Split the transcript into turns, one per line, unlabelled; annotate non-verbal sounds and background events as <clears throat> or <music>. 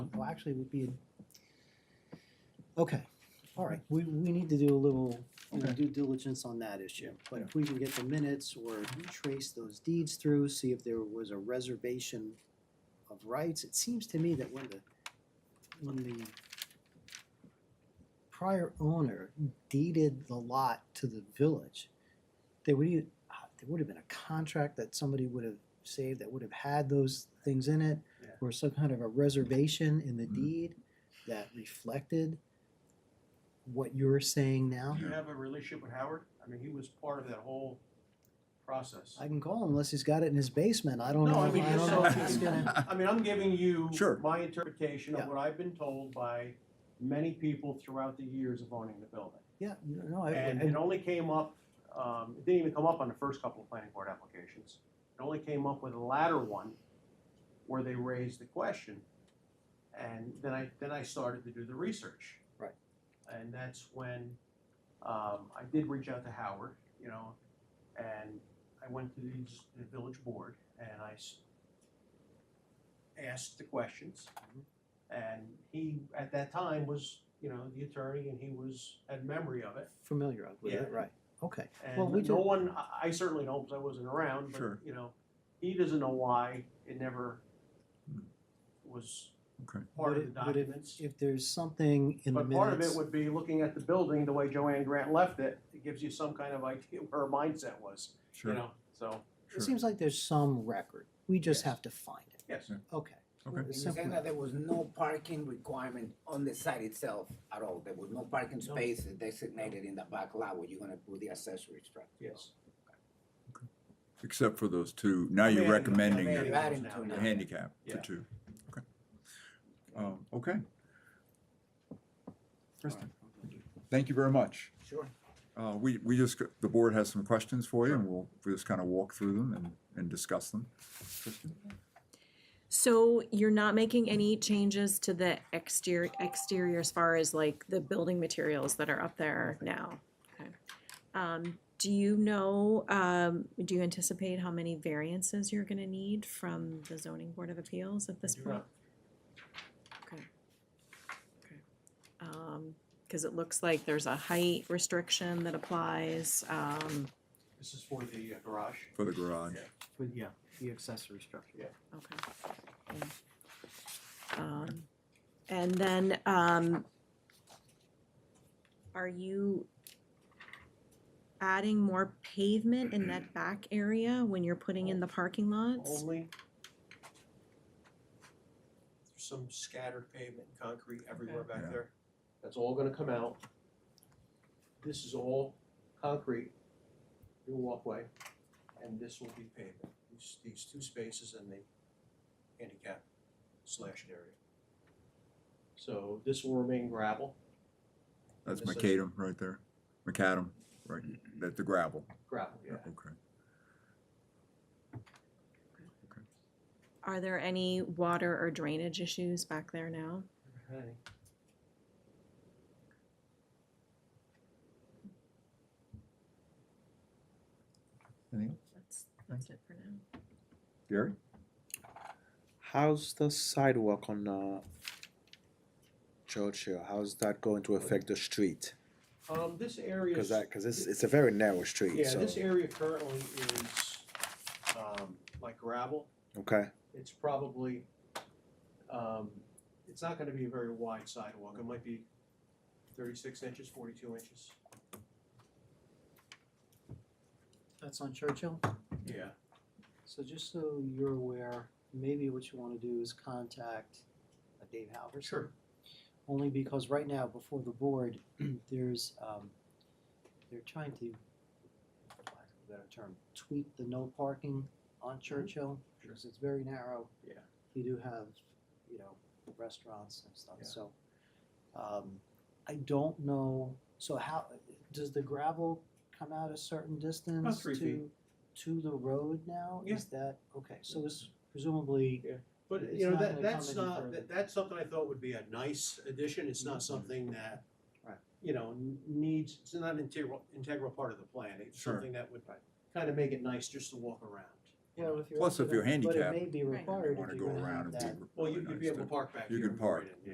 actually would be, okay, all right, we, we need to do a little you know,
Okay.
due diligence on that issue. But if we can get the minutes or trace those deeds through, see if there was a reservation of rights, it seems to me that when the, when the prior owner deeded the lot to the village, there would, e- ah, there would have been a contract that somebody would have saved that would have had those things in it,
Yeah. Mm-hmm.
or some kind of a reservation in the
Mhm.
deed that reflected what you're saying now.
Do you have a relationship with Howard? I mean, he was part of that whole process.
I can call him unless he's got it in his basement, I don't
No,
know,
I
I
mean,
don't
just
know if
so-
he's
<laughs>
gonna,
I mean, I'm giving you
Sure.
my interpretation
Yeah.
of what I've been told by many people throughout the years of owning the building.
yeah, no, I,
And it
I,
only came up, um, it didn't even come up on the first couple of planning board applications. It only came up with the latter one where they raised the question. And then I, then I started to do the research.
Right.
And that's when, um, I did reach out to Howard, you know, and I went to these, the village board and I s- asked the questions.
Mm-hmm.
And he, at that time, was, you know, the attorney and he was, had memory of it.
familiar with
Yeah.
it, right, okay. Well, we
And no
did-
one, I- I certainly don't, because I wasn't around, but,
Sure.
you know, he doesn't know why it never
Hmm.
was
Okay.
part
But
of the
it- but if-
documents.
If there's something in the
But part of it
minutes-
would be looking at the building, the way Joanne Grant left it, it gives you some kind of idea where her mindset was, you
Sure,
know, so,
It
sure.
seems like there's some record, we just
Yes.
have to find it,
yes.
Yeah.
okay.
Okay.
It's
In the
simple.
sense that there was no parking requirement on the site itself at all, there was no parking
No.
spaces designated in the back lot where you're gonna put the accessory structure.
Yes.
Except for those two, now you're
Amanda-
recommending
Amanda
the
You're adding
knows
to
now,
it.
yeah.
handicap for
Yeah.
two. Okay. Um, Okay. Kristen, thank you very much.
Sure.
Uh, We, we just, got- the board has some questions for you, and we'll, we'll just kind of walk through them and, and discuss them. Kristen?
So you're not making any changes to the exterior, exterior as far as like the building materials that are up there now? Okay. Um, do you know, um, do you anticipate how many variances you're gonna need from the zoning board of appeals at this
do
point? Okay. Okay. Um, cause it looks like there's a height restriction that applies, um,
This is for the uh, garage.
For the garage.
With, yeah, the accessory structure.
Yeah.
Okay. yeah. Um, And then, um, are you adding more pavement in that back area when you're putting in the parking lots?
Only some scattered pavement, and concrete everywhere
Yeah.
back there. That's all gonna come out. This is all concrete, new walkway, and this will be pavement. These, these two spaces and the handicap slashed area. So this will remain gravel,
That's
This is-
macadam right there. Macadam, right, that's the gravel.
gravel, yeah.
Okay.
Are there any water or drainage issues back there now?
Okay.
Anything else?
That's, that's it for now.
Gary?
How's the sidewalk on uh, Churchill? How's that going to affect the street?
Um, this area
Because that because it's, it's a very narrow street.
yeah,
so
this area currently is, um, like gravel.
okay,
it's probably, um, it's not gonna be a very wide sidewalk, it might be thirty-six inches, forty-two inches.
That's on Churchill?
Yeah.
So just so you're aware, maybe what you wanna do is contact uh, Dave Halverson. Only because right now, before the board, <clears throat> there's, um, they're trying to, for lack of a better term, tweak the no parking on Churchill,
Mm-hmm. Sure.
because it's very narrow.
Yeah.
You do have, you know, restaurants and stuff,
Yeah.
so, um, I don't know, so how, does the gravel come out a certain distance?
three
to-
feet.
To the road now?
Yeah.
Is that, okay, so this presumably,
But,
It's
you know,
not
that,
gonna come
that's
any
not,
further. Mm-hmm.
that, that's something I thought would be a nice addition, it's not something that,
Right.
you know, n- needs, it's not an integral, integral part of the plan, it's
Sure.
something that would kind of make it nice just to walk around.
you
Well,
know.
if you're
Plus,
up
if
to
you're
that- But
handicapped,
it may be
Right.
required
want
if
to
you're
go
gonna
around
have
and
that.
be.
Well,
really
you'd
nice
be able
to-
to park back
You
here.
can
and go right
park.
in, yeah.